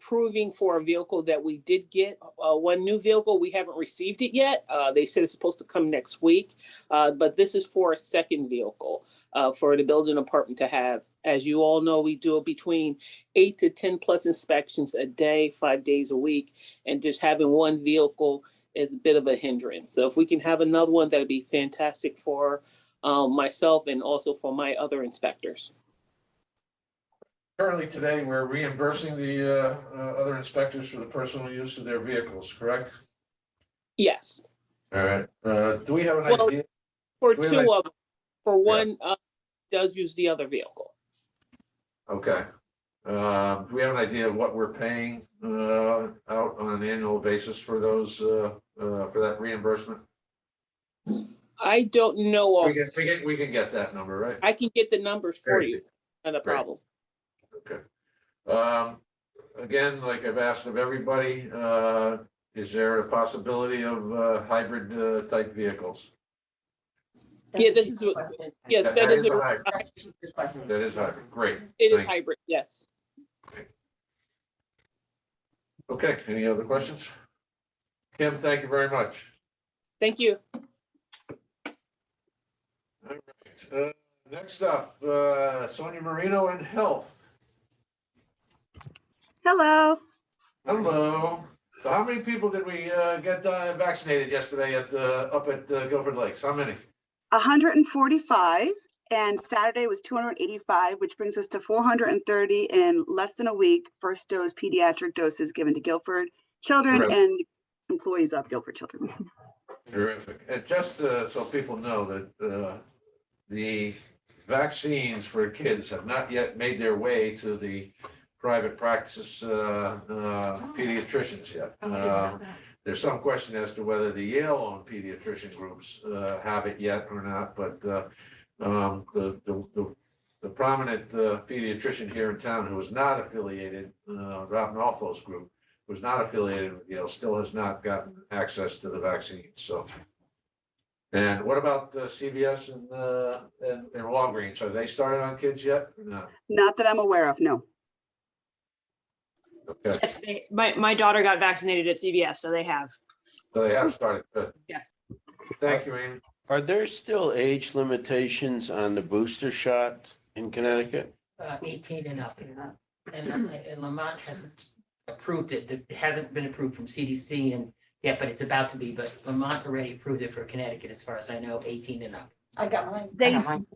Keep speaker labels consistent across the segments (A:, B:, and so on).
A: approving for a vehicle that we did get, uh, one new vehicle. We haven't received it yet. Uh, they said it's supposed to come next week. Uh, but this is for a second vehicle, uh, for the building department to have. As you all know, we do between eight to ten plus inspections a day, five days a week. And just having one vehicle is a bit of a hindrance. So if we can have another one, that'd be fantastic for, um, myself and also for my other inspectors.
B: Currently today, we're reimbursing the uh, uh, other inspectors for the personal use of their vehicles, correct?
A: Yes.
B: All right, Uh, do we have an
A: Well-
B: idea?
A: For
B: Wait,
A: two
B: wait.
A: of, them, for one, uh, does use the other vehicle.
B: Okay. Uh, Do we have an idea of what we're paying uh, out on an annual basis for those, uh, uh, for that reimbursement?
A: I don't know
B: We
A: of,
B: can, we can, we can get that number, right?
A: I can get the numbers for you, not a
B: Great.
A: problem.
B: Okay. Um, again, like I've asked of everybody, uh, is there a possibility of, uh, hybrid, uh, type vehicles?
A: Yeah, this is what- Yes, that
B: That
A: is,
B: is
A: a-
B: a hybrid.
C: That
B: That is hybrid, great.
A: it is
B: Thank-
A: hybrid, yes.
B: Okay, any other questions? Kim, thank you very much.
A: Thank you.
B: All right, uh, next up, uh, Sonia Marino and Health.
D: Hello.
B: Hello. So how many people did we, uh, get uh, vaccinated yesterday at the, up at uh, Guilford Lakes? How many?
D: 145 and Saturday was 285, which brings us to 430 in less than a week. First dose pediatric doses given to Guilford children
B: Correct.
D: and employees of Guilford children.
B: Terrific. And just uh, so people know that uh, the vaccines for kids have not yet made their way to the private practice uh, uh, pediatricians yet. Um, There's some question as to whether the Yale-owned pediatrician groups uh, have it yet or not, but uh, um, the the- the- the prominent uh, pediatrician here in town who is not affiliated, uh, Rob Nolfo's group, was not affiliated with Yale, still has not gotten access to the vaccine, so. And what about uh, CVS and, uh, and and Walgreens? Are they started on kids yet? No,
D: Not that I'm aware of, no.
B: okay,
E: Yes, they, my, my daughter got vaccinated at CVS, so they have.
B: so they have started, good.
E: Yes.
B: Thank you, Amy.
F: Are there still age limitations on the booster shot in Connecticut?
C: Eighteen and up. And and Lamont hasn't approved it. It hasn't been approved from CDC and yet, but it's about to be. But Lamont already approved it for Connecticut, as far as I know, eighteen and up.
G: I got mine.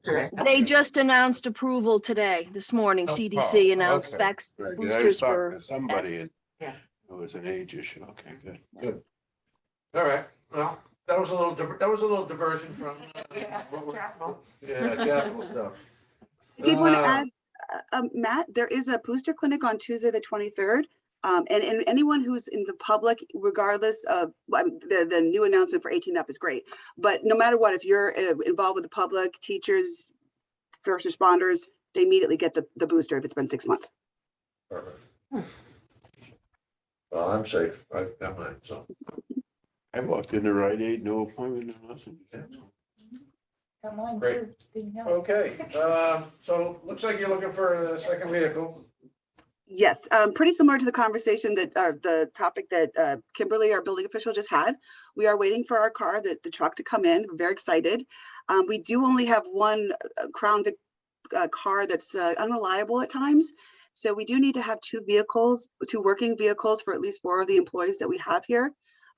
E: They, they just announced approval today, this morning.
C: Oh,
E: CDC announced
F: okay.
E: vax
F: Right, I
E: boosters
F: thought
E: were.
F: that Somebody. had-
C: Yeah.
F: It was an age issue. Okay, good.
B: All right, well, that was a little, diver- that was a little diversion from. uh, what we're- Yeah, capital stuff.
D: I did want to
B: Uh,
D: add, uh, um, Matt, there is a booster clinic on Tuesday, the 23rd. Um, and, and anyone who's in the public, regardless of, well, I'm- the, the new announcement for 18 up is great. But no matter what, if you're uh, involved with the public, teachers, first responders, they immediately get the, the booster if it's been six months.
B: Perfect. Well, I'm safe, I got mine, so.
F: I walked into Rite Aid, no appointment, no nothing.
G: Got mine
B: Great.
G: too. Didn't know.
B: Okay, uh, so looks like you're looking for a second vehicle.
D: Yes, um, pretty similar to the conversation that, uh, the topic that, uh, Kimberly, our building official just had. We are waiting for our car, the, the truck to come in. We're very excited. Um, we do only have one uh, Crown Vic, uh, car that's uh, unreliable at times. So we do need to have two vehicles, two working vehicles for at least four of the employees that we have here.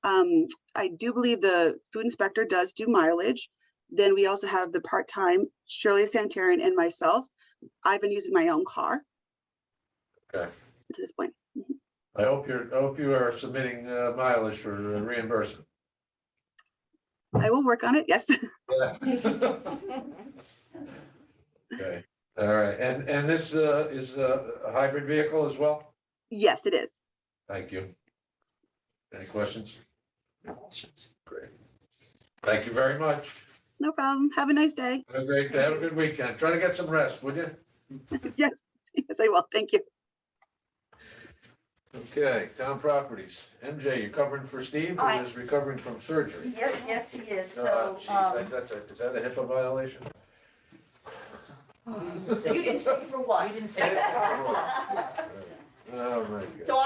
D: Um, I do believe the food inspector does do mileage. Then we also have the part-time Shirley Sanitarian and myself. I've been using my own car
B: Okay.
D: to this point.
B: I hope you're, I hope you are submitting uh, mileage for reimbursement.
D: I will work on it. Yes.
B: Okay, all right, and, and this uh, is a a hybrid vehicle as well?
D: Yes, it is.
B: Thank you. Any questions?
C: No questions.
B: Great. Thank you very much.
D: No problem. Have a nice day.
B: Have a great, have a good weekend. Try to get some rest, would you?
D: Yes. Yes, I will. Thank you.
B: Okay, town properties. MJ, you're covering for Steve,
G: I-
B: who is recovering from surgery.
G: Yeah, Yes, he is,
B: Oh,
G: so.
B: geez,
G: um,
B: that- that's a, is that a HIPAA violation?
C: Oh.
G: You didn't say for what?
C: You didn't say.
B: Oh, my God.
G: So